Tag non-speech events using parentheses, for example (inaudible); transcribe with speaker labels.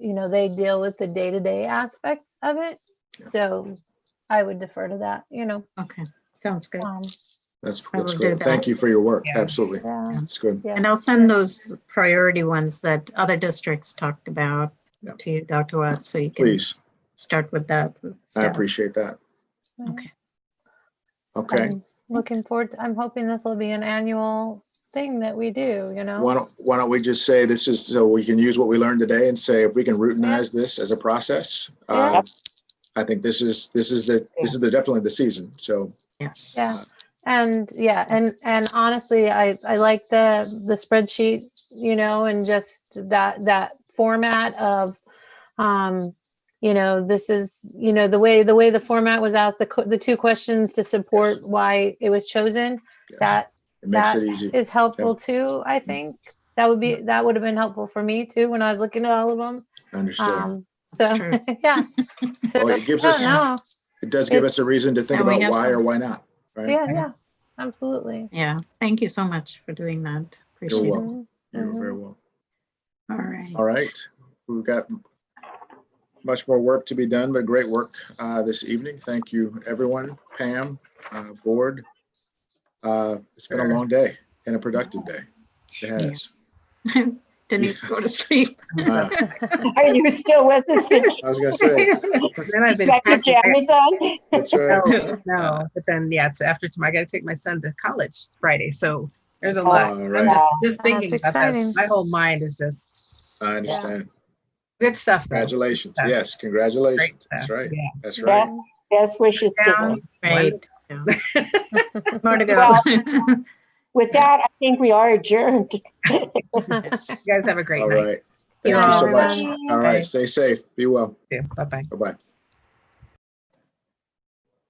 Speaker 1: you know, they deal with the day-to-day aspects of it. So I would defer to that, you know.
Speaker 2: Okay, sounds good.
Speaker 1: um,
Speaker 3: That's,
Speaker 2: I
Speaker 3: that's
Speaker 2: will do
Speaker 3: good. Thank
Speaker 2: that.
Speaker 3: you for your work.
Speaker 4: Yeah.
Speaker 3: Absolutely.
Speaker 1: yeah.
Speaker 3: That's good.
Speaker 1: Yeah.
Speaker 2: And I'll send those priority ones that other districts talked about
Speaker 3: Yeah.
Speaker 2: to you, Dr. Watts, so you can
Speaker 3: Please.
Speaker 2: start with that.
Speaker 3: I
Speaker 2: stuff.
Speaker 3: appreciate that.
Speaker 2: Okay.
Speaker 1: So
Speaker 3: Okay.
Speaker 1: I'm Looking forward, to- I'm hoping this will be an annual thing that we do, you know?
Speaker 3: Why don't, why don't we just say this is, so we can use what we learned today and say if we can routinize this as a process?
Speaker 1: Yeah.
Speaker 3: uh, I think this is, this is the, this is the, definitely the season. So
Speaker 2: Yes.
Speaker 1: Yeah. And yeah, and and honestly, I I like the the spreadsheet, you know, and just that that format of, um, you know, this is you know the way the way the format was asked, the co- the two questions to support why it was chosen.
Speaker 3: yes,
Speaker 1: That
Speaker 3: it makes
Speaker 1: that
Speaker 3: it easy.
Speaker 1: is helpful too. I think that would be that would have been helpful for me too when I was looking at all of them.
Speaker 3: Understood.
Speaker 1: Um, so
Speaker 2: That's true.
Speaker 1: (laughs) yeah,
Speaker 3: Well,
Speaker 1: so I
Speaker 3: it gives
Speaker 1: don't
Speaker 3: us,
Speaker 1: know.
Speaker 3: it does give us a
Speaker 1: it's-
Speaker 3: reason to think
Speaker 2: And we
Speaker 3: about
Speaker 2: have
Speaker 3: why or
Speaker 2: some-
Speaker 3: why not. Right?
Speaker 1: Yeah, yeah, absolutely.
Speaker 2: Yeah, thank you so much for doing that. Appreciate it.
Speaker 3: welcome.
Speaker 1: Mhm.
Speaker 3: You're
Speaker 2: Mm-hmm.
Speaker 3: Very well.
Speaker 2: All right.
Speaker 3: All right. We've got much more work to be done, but great work uh, this evening. Thank you, everyone, Pam, uh, Board. Uh, It's been a long day and a productive day. It has.
Speaker 2: Denise, go
Speaker 3: (laughs)
Speaker 2: to sleep.
Speaker 3: Uh,
Speaker 5: Are you still with us? Got
Speaker 3: I was gonna say,
Speaker 4: Then I've been
Speaker 5: your
Speaker 4: practicing.
Speaker 5: jammies on?
Speaker 4: (laughs)
Speaker 3: that's right.
Speaker 4: No, no, but then yeah, it's after tomorrow. I got to take my son to college Friday, so there's a lot.
Speaker 3: All
Speaker 4: I'm
Speaker 3: Oh, right,
Speaker 4: just,
Speaker 5: Wow.
Speaker 4: just thinking
Speaker 1: Oh, That's
Speaker 4: about that.
Speaker 1: exciting.
Speaker 4: My whole mind is just
Speaker 3: I understand.
Speaker 4: good stuff. though.
Speaker 3: Congratulations.
Speaker 4: Yeah.
Speaker 3: Yes,
Speaker 4: Great
Speaker 3: congratulations.
Speaker 4: stuff.
Speaker 3: That's right.
Speaker 4: Yeah.
Speaker 3: That's
Speaker 1: Yeah.
Speaker 3: right.
Speaker 5: Best wishes to them.
Speaker 2: Right. yeah.
Speaker 3: (laughs)
Speaker 2: More to go. (laughs)
Speaker 5: With that, I think we are adjourned.
Speaker 1: Mm-hmm. (laughs)
Speaker 4: You guys have a great
Speaker 3: All
Speaker 4: night.
Speaker 3: right. Thank you so much.
Speaker 1: Bye.
Speaker 3: All right, stay safe. Be well.
Speaker 4: Bye bye.
Speaker 3: Bye-bye.